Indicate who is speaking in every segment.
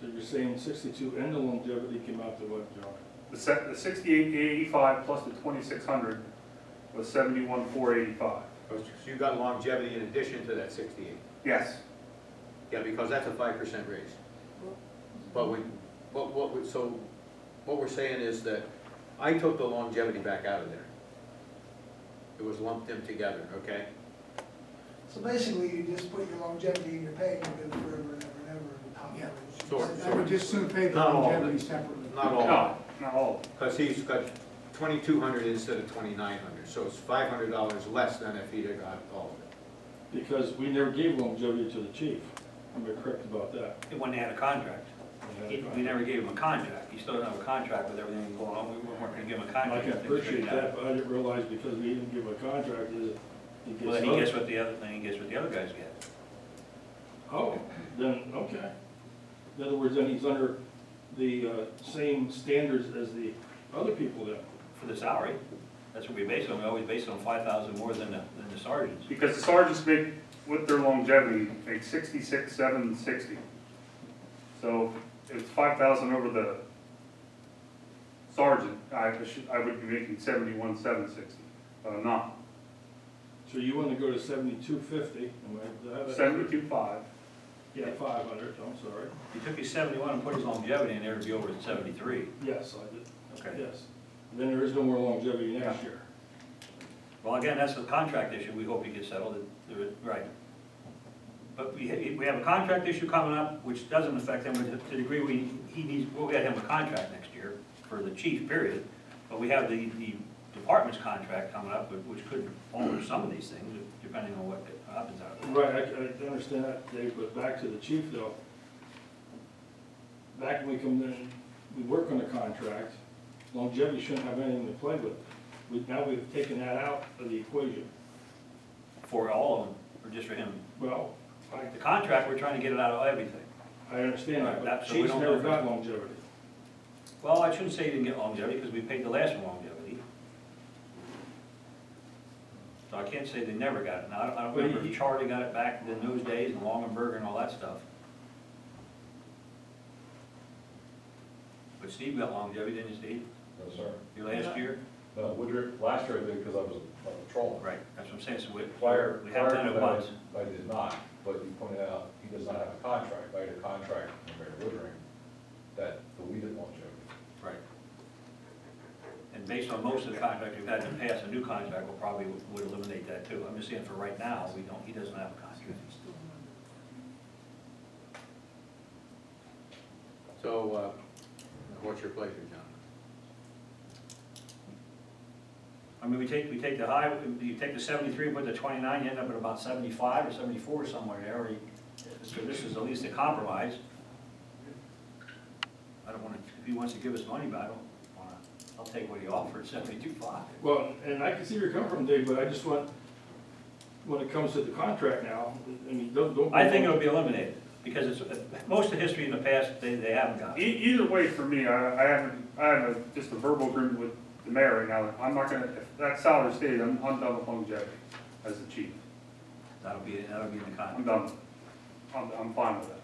Speaker 1: So you're saying sixty-two and the longevity came out to what, John?
Speaker 2: The se- the sixty-eight eighty-five plus the twenty-six hundred was seventy-one four eighty-five.
Speaker 3: So you got longevity in addition to that sixty-eight?
Speaker 2: Yes,
Speaker 3: Yeah, because that's a five percent raise. But we, but what, we- so, what we're saying is that I took the longevity back out of there. It was lumped them together, okay?
Speaker 4: So basically, you just put your longevity in your pay, and you do it forever and ever and ever and top
Speaker 5: Yeah.
Speaker 4: average.
Speaker 3: Sort,
Speaker 5: I would
Speaker 3: sort,
Speaker 5: just soon pay the
Speaker 3: Not all of it.
Speaker 5: longevity separately.
Speaker 3: not all,
Speaker 2: no, not all.
Speaker 3: because he's got twenty-two hundred instead of twenty-nine hundred, so it's five hundred dollars less than if he'd have got all of it.
Speaker 1: Because we never gave longevity to the chief. Am I correct about that?
Speaker 6: When they had a contract. He- We never gave him a contract. He still didn't have a contract with everything going on. We weren't gonna give him a
Speaker 1: I
Speaker 6: contract.
Speaker 1: can appreciate that, but I didn't realize because we didn't give a contract is it- it
Speaker 6: Well,
Speaker 1: gets.
Speaker 6: then he gets
Speaker 1: other-
Speaker 6: what the other, then he gets what the other guys get.
Speaker 1: Oh, then, okay. In other words, then he's under the uh, same standards as the other people then.
Speaker 6: For the salary, that's what we base it on. We always base it on five thousand more than the, than the sergeants.
Speaker 2: Because the sergeants make, with their longevity, make sixty-six seven sixty. So if it's five thousand over the sergeant, I should, I would be making seventy-one seven sixty, but I'm not.
Speaker 1: So you want to go to seventy-two fifty, am I, did I have that?
Speaker 2: Seventy-two five,
Speaker 1: Yeah, five hundred, I'm sorry.
Speaker 6: He took his seventy-one and put his longevity in there to be over at seventy-three.
Speaker 1: Yes, I did,
Speaker 6: Okay.
Speaker 1: yes. Then there is no more longevity next
Speaker 2: Yeah.
Speaker 1: year.
Speaker 6: Well, again, that's the contract issue. We hope he gets settled. It- there is- Right. But we, ha- we have a contract issue coming up, which doesn't affect him to the degree we, he needs, we'll get him a contract next year for the chief, period. But we have the, the department's contract coming up, but- which could alter some of these things, depending on what happens out of it.
Speaker 1: Right, I, I understand that, Dave, but back to the chief though. Back when we come in, we work on a contract, longevity shouldn't have anything to play with. We, now we've taken that out of the equation.
Speaker 6: For all of them, or just for him.
Speaker 1: Well, I,
Speaker 6: The contract, we're trying to get it out of everything.
Speaker 1: I understand that, but
Speaker 6: That- so we
Speaker 1: chiefs
Speaker 6: don't
Speaker 1: never
Speaker 6: know.
Speaker 1: got longevity.
Speaker 6: Well, I shouldn't say he didn't get longevity, because we paid the last one longevity. So I can't say they never got it. Now, I don't- I don't
Speaker 1: But he-
Speaker 6: remember if Charlie got it back in those days, and Longenberger and all that stuff. But Steve got longevity, didn't he, Steve?
Speaker 7: No, sir.
Speaker 6: Your last year?
Speaker 7: No, Woodruff, last year I did because I was a- a patrolman.
Speaker 6: Right, that's what I'm saying, so we,
Speaker 7: Prior,
Speaker 6: we
Speaker 7: prior
Speaker 6: have
Speaker 7: to
Speaker 6: done it
Speaker 7: that, I-
Speaker 6: once.
Speaker 7: I did not, but you pointed out, he does not have a contract, I had a contract from Mayor Woodring that we didn't want to.
Speaker 6: Right. And based on most of the contract we've had in the past, a new contract will probably would eliminate that too. I'm just saying for right now, we don't, he doesn't have a contract.
Speaker 3: So, uh, what's your pleasure, John?
Speaker 6: I mean, we take, we take the high, you take the seventy-three, put the twenty-nine, you end up at about seventy-five or seventy-four somewhere there, or you, so this is at least a compromise. I don't wanna, if he wants to give us money, but I don't wanna, I'll take what he offered, seventy-two five.
Speaker 1: Well, and I can see where you're coming from, Dave, but I just want, when it comes to the contract now, I mean, don't, don't.
Speaker 6: I think it'll be eliminated, because it's, most of history in the past, they, they haven't got
Speaker 2: E-
Speaker 6: it.
Speaker 2: Either way, for me, I, I haven't, I have a, just a verbal agreement with the mayor right now, I'm not gonna, if that salary stays, I'm, I'm done with longevity as the chief,
Speaker 6: That'll be, that'll be in the
Speaker 2: I'm
Speaker 6: contract.
Speaker 2: done. with it. I'm, I'm fine with that.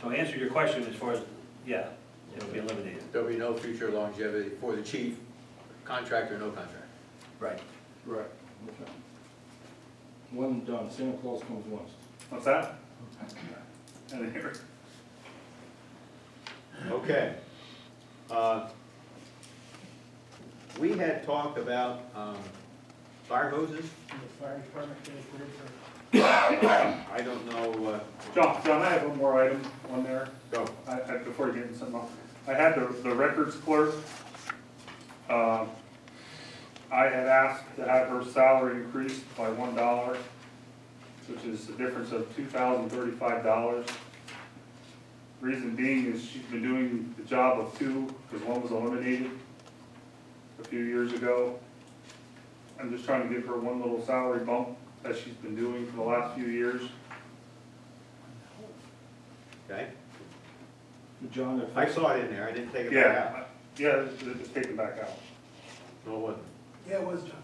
Speaker 6: So to answer your question as far as, yeah, it'll be eliminated.
Speaker 3: There'll be no future longevity for the chief, contract or no contract.
Speaker 6: Right.
Speaker 1: Right, okay. One and done, Santa Claus comes once.
Speaker 2: What's that? I didn't hear.
Speaker 3: Okay. Uh, We had talked about um, fire hoses.
Speaker 4: And The fire department can approve for
Speaker 3: I don't know, uh,
Speaker 2: John, John, I have one more item on there,
Speaker 3: go.
Speaker 2: I, I, before you get into something else. I had the, the records clerk, um, I had asked to have her salary increased by one dollar, which is a difference of two thousand thirty-five dollars. Reason being is she's been doing the job of two, because one was eliminated a few years ago. I'm just trying to give her one little salary bump that she's been doing for the last few years.
Speaker 3: Okay?
Speaker 1: John, if.
Speaker 3: I saw it in there, I didn't take it back out.
Speaker 2: Yeah, yeah, just just take it back out.
Speaker 3: No, it wasn't. Oh,
Speaker 4: it. Yeah, it was John.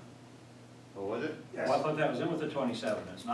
Speaker 3: What was it?
Speaker 2: Yes.
Speaker 6: Well, I thought that was in with the twenty-seven, it's not